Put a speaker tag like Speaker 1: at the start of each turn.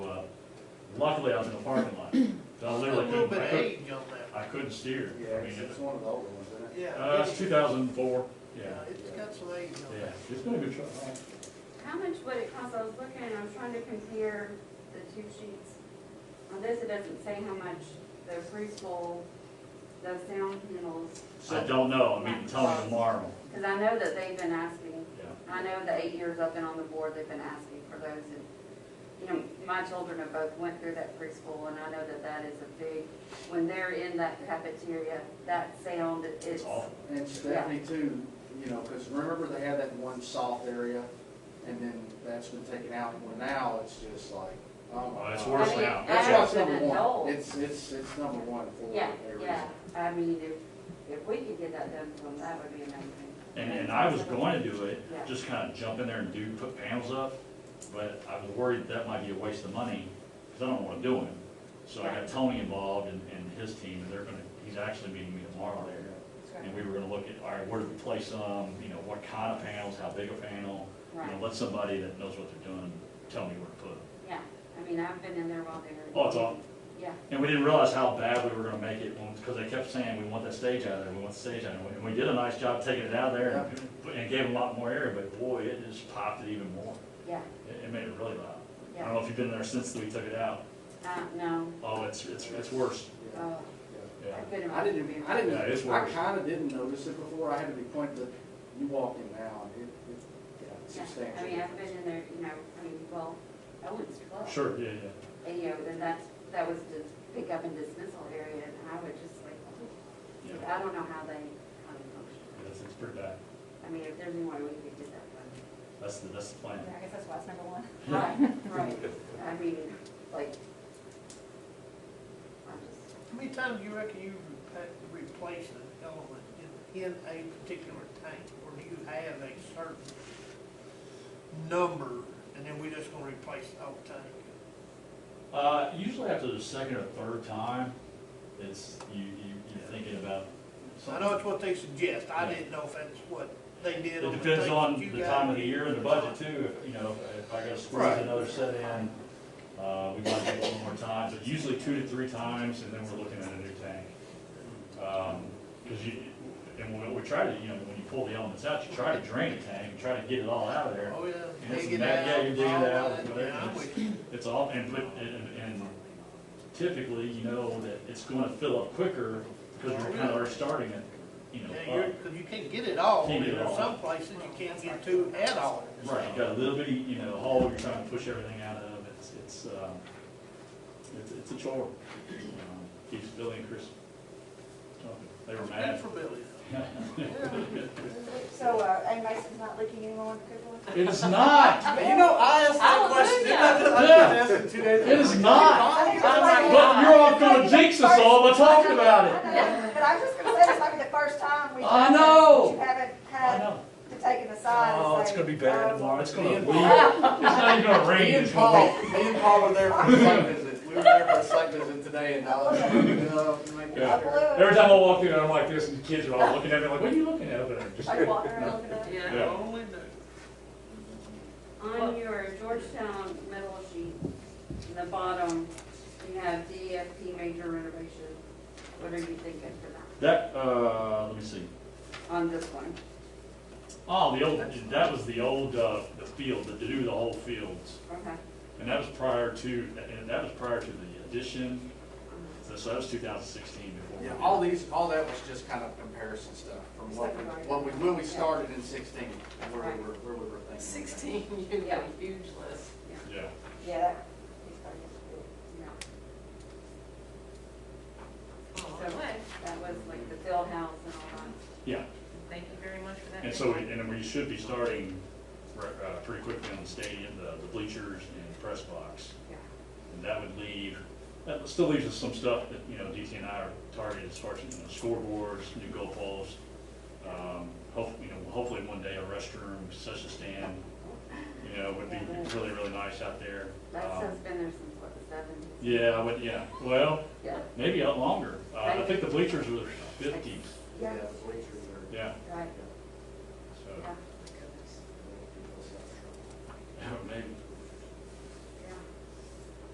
Speaker 1: Luckily, I was in the parking lot, but I
Speaker 2: A
Speaker 1: literally
Speaker 2: little
Speaker 1: couldn't,
Speaker 2: bit
Speaker 1: I
Speaker 2: of
Speaker 1: couldn't,
Speaker 2: age on that.
Speaker 1: I couldn't steer.
Speaker 3: Yeah,
Speaker 1: I mean,
Speaker 3: it's
Speaker 1: it-
Speaker 3: it's one of the older ones, isn't it?
Speaker 2: Yeah.
Speaker 1: Uh, it's two thousand and four, yeah,
Speaker 2: Yeah, it's got some age on
Speaker 1: yeah,
Speaker 2: that.
Speaker 1: it's been a good truck.
Speaker 4: How much would it cost, I was looking, and I was trying to compare the two sheets. On this, it doesn't say how much the preschool, the sound panels,
Speaker 1: I don't know, I'm meeting Tony tomorrow,
Speaker 4: because I know that they've been asking,
Speaker 1: yeah.
Speaker 4: I know the eight years I've been on the board, they've been asking for those. And You know, my children have both went through that preschool, and I know that that is a big, when they're in that cafeteria, that sound
Speaker 1: It's
Speaker 4: is,
Speaker 1: awful.
Speaker 3: And Stephanie too, you know, because remember they had that one soft area, and then that's been taken out, well, now it's just like, oh my
Speaker 1: Oh, it's
Speaker 3: God.
Speaker 1: worse
Speaker 4: I mean,
Speaker 1: now.
Speaker 3: That's why it's
Speaker 4: as an
Speaker 3: number
Speaker 4: adult.
Speaker 3: one, it's, it's, it's number one for
Speaker 4: yeah,
Speaker 3: everything.
Speaker 4: yeah. I mean, if, if we could get that done for them, that would be amazing.
Speaker 1: And, and I was going to do it,
Speaker 4: Yeah.
Speaker 1: just kind of jump in there and do, put panels up, but I was worried that might be a waste of money, because I don't want to do it. So I got
Speaker 4: Right.
Speaker 1: Tony involved and, and his team, and they're gonna, he's actually meeting me tomorrow there. And we were gonna look at, all right, where do we place them, you know, what kind of panels, how big a panel? You know,
Speaker 4: Right,
Speaker 1: let somebody that knows what they're doing tell me where to put them.
Speaker 4: yeah, I mean, I've been in there while they were.
Speaker 1: Oh, it's awful.
Speaker 4: Yeah,
Speaker 1: And we didn't realize how bad we were gonna make it, because they kept saying, we want that stage out of there, we want the stage out of there. And we did a nice job taking it out of there and, and gave it a lot more area, but boy, it just popped it even more.
Speaker 4: yeah,
Speaker 1: It, it made it really loud. I don't
Speaker 4: yeah,
Speaker 1: know if you've been there since we took it out.
Speaker 4: uh, no,
Speaker 1: Oh, it's, it's, it's worse.
Speaker 3: Yeah,
Speaker 4: oh,
Speaker 3: yeah.
Speaker 1: Yeah.
Speaker 4: I couldn't.
Speaker 3: I didn't, even- I
Speaker 1: Yeah, it's
Speaker 3: didn't, I
Speaker 1: worse.
Speaker 3: kinda didn't notice it before, I had to be pointed, but you walk in now, and it, it, yeah, it's
Speaker 4: Yeah, I
Speaker 3: substantial.
Speaker 4: mean, I've been in there, you know, I mean, well, Owen's Club.
Speaker 1: Sure, yeah, yeah.
Speaker 4: And, you know, then that's, that was the pickup and dismissal area, and I would just like, oh,
Speaker 1: Yeah,
Speaker 4: I don't know how they, how they function.
Speaker 1: it's, it's pretty bad.
Speaker 4: I mean, if there's any way we could get that done.
Speaker 1: That's the, that's the plan.
Speaker 5: Yeah, I guess that's why it's number one.
Speaker 4: Right, right, I mean, like, I'm just,
Speaker 2: How many times do you reckon you repa- replace an element in, in a particular tank? Or do you have a certain number and then we just gonna replace the whole tank?
Speaker 1: Uh, usually after the second or third time, it's, you, you, you're thinking about.
Speaker 2: I know it's what they suggest. I didn't know if that's what they did
Speaker 1: It
Speaker 2: on the
Speaker 1: depends
Speaker 2: tank
Speaker 1: on
Speaker 2: that you
Speaker 1: the
Speaker 2: got.
Speaker 1: time of the year and the budget too, if, you know, if I gotta squeeze
Speaker 2: Right.
Speaker 1: another set in, uh, we might do it one more time, but usually two to three times, and then we're looking at a new tank. Um, cause you, and we, we try to, you know, when you pull the elements out, you try to drain the tank, try to get it all out of there.
Speaker 2: Oh, yeah.
Speaker 1: And it's
Speaker 2: Dig it
Speaker 1: a bad- yeah,
Speaker 2: out,
Speaker 1: you dig it
Speaker 2: all
Speaker 1: out,
Speaker 2: that.
Speaker 1: whatever.
Speaker 2: Yeah, I'm with you.
Speaker 1: It's all, and, but, and, and typically, you know, that it's gonna fill up quicker, cause we're kinda already starting it, you know,
Speaker 2: Yeah, you're,
Speaker 1: up.
Speaker 2: cause you can't get it all.
Speaker 1: Can't get it
Speaker 2: There's
Speaker 1: all.
Speaker 2: Some places you can't get two at all.
Speaker 1: Right, you got a little bitty, you know, hole you're trying to push everything out of, it's, it's, um, it's, it's a chore. Um, Keeps Billy and Chris, talking. they were
Speaker 2: Good
Speaker 1: mad.
Speaker 2: for Billy.
Speaker 5: So, uh, and Mason's not leaking anymore on the good one?
Speaker 1: It is not,
Speaker 2: You know, I asked that question.
Speaker 4: Hallelujah.
Speaker 2: I just asked it two days
Speaker 1: it is not,
Speaker 5: I think it's
Speaker 2: I'm
Speaker 5: like-
Speaker 1: but you're all gonna jinx us all by talking about it.
Speaker 5: I know, But I was just gonna say, this might be the first time we've.
Speaker 1: I know.
Speaker 5: You haven't
Speaker 1: I
Speaker 5: had
Speaker 1: know.
Speaker 5: to take it aside. and
Speaker 1: Oh, it's
Speaker 5: say,
Speaker 1: gonna be bad
Speaker 5: um,
Speaker 1: tomorrow, it's gonna,
Speaker 3: Me
Speaker 1: it's
Speaker 3: and
Speaker 1: not even gonna rain,
Speaker 3: Me and
Speaker 1: it's gonna
Speaker 3: Paul, me and Paul were there for a site visit, we were there for a site visit today, and I was like, "No, make
Speaker 1: Yeah.
Speaker 3: it
Speaker 5: I
Speaker 3: sure."
Speaker 5: blew
Speaker 1: Every time I walk in, I'm like this, and the kids are all looking at me like, what are you looking at over there?
Speaker 5: it.
Speaker 1: Just-
Speaker 5: Are you walking around looking at it?
Speaker 2: Yeah,
Speaker 1: Yeah.
Speaker 2: only the-
Speaker 4: on your Georgetown metal sheet, in the bottom, you have DFP major renovation. What are you thinking for that,
Speaker 1: That, uh, let me see.
Speaker 4: on this one?
Speaker 1: Oh, the old, that was the old, uh, the field, the, to do the whole fields.
Speaker 4: Okay,
Speaker 1: And that was prior to, and that was prior to the addition, so so that was two thousand sixteen
Speaker 3: Yeah,
Speaker 1: before.
Speaker 3: all these, all that was just kind of comparison stuff from what, we- what we, when we started in sixteen, and where we were, where we were thinking.
Speaker 6: Sixteen, you
Speaker 4: Yeah.
Speaker 6: got a huge list.
Speaker 1: Yeah,
Speaker 5: Yeah, that, he's starting to
Speaker 4: yeah,
Speaker 6: Oh,
Speaker 4: So-
Speaker 6: okay.
Speaker 4: that was like the field house and all
Speaker 1: yeah,
Speaker 6: Thank you very much for that.
Speaker 1: and so, we- and we should be starting, re- uh, pretty quickly on the stadium, the the bleachers and the press box.
Speaker 4: that, yeah.
Speaker 1: And that would leave, that still leaves us some stuff that, you know, DT and I are targeted as far as, you know, scoreboards, new goal posts. Um, hopefully, you know, hopefully one day a restroom, such a stand, you know, would be really, really nice out there.
Speaker 4: That
Speaker 1: Um,
Speaker 4: stuff's been there since what, the seventies?
Speaker 1: Yeah, I would, yeah, well,
Speaker 4: Yeah,
Speaker 1: maybe out longer. Uh, I think the bleachers were fifties,
Speaker 3: Yeah,
Speaker 4: yeah,
Speaker 3: the bleachers are.
Speaker 1: yeah.
Speaker 4: right,